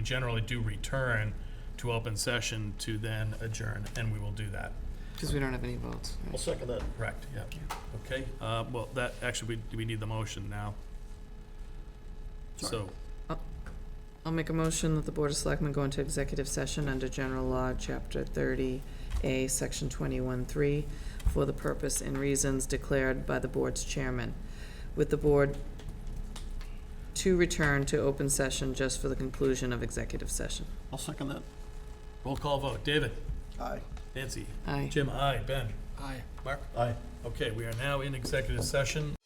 We generally do return to open session to then adjourn, and we will do that. Because we don't have any votes. right? I'll second that. Correct, yeah. Okay, uh, well, that, actually, we, we need the motion now. So, I'll make a motion that the Board of Selectmen go into executive session under General Law, Chapter 30A, Section 21-3, for the purpose and reasons declared by the Board's chairman, with the Board to return to open session just for the conclusion of executive session. I'll second that. roll call vote. David? Aye. Nancy? Aye. Jim, aye. Ben? Aye. Mark? Aye. Okay, we are now in executive session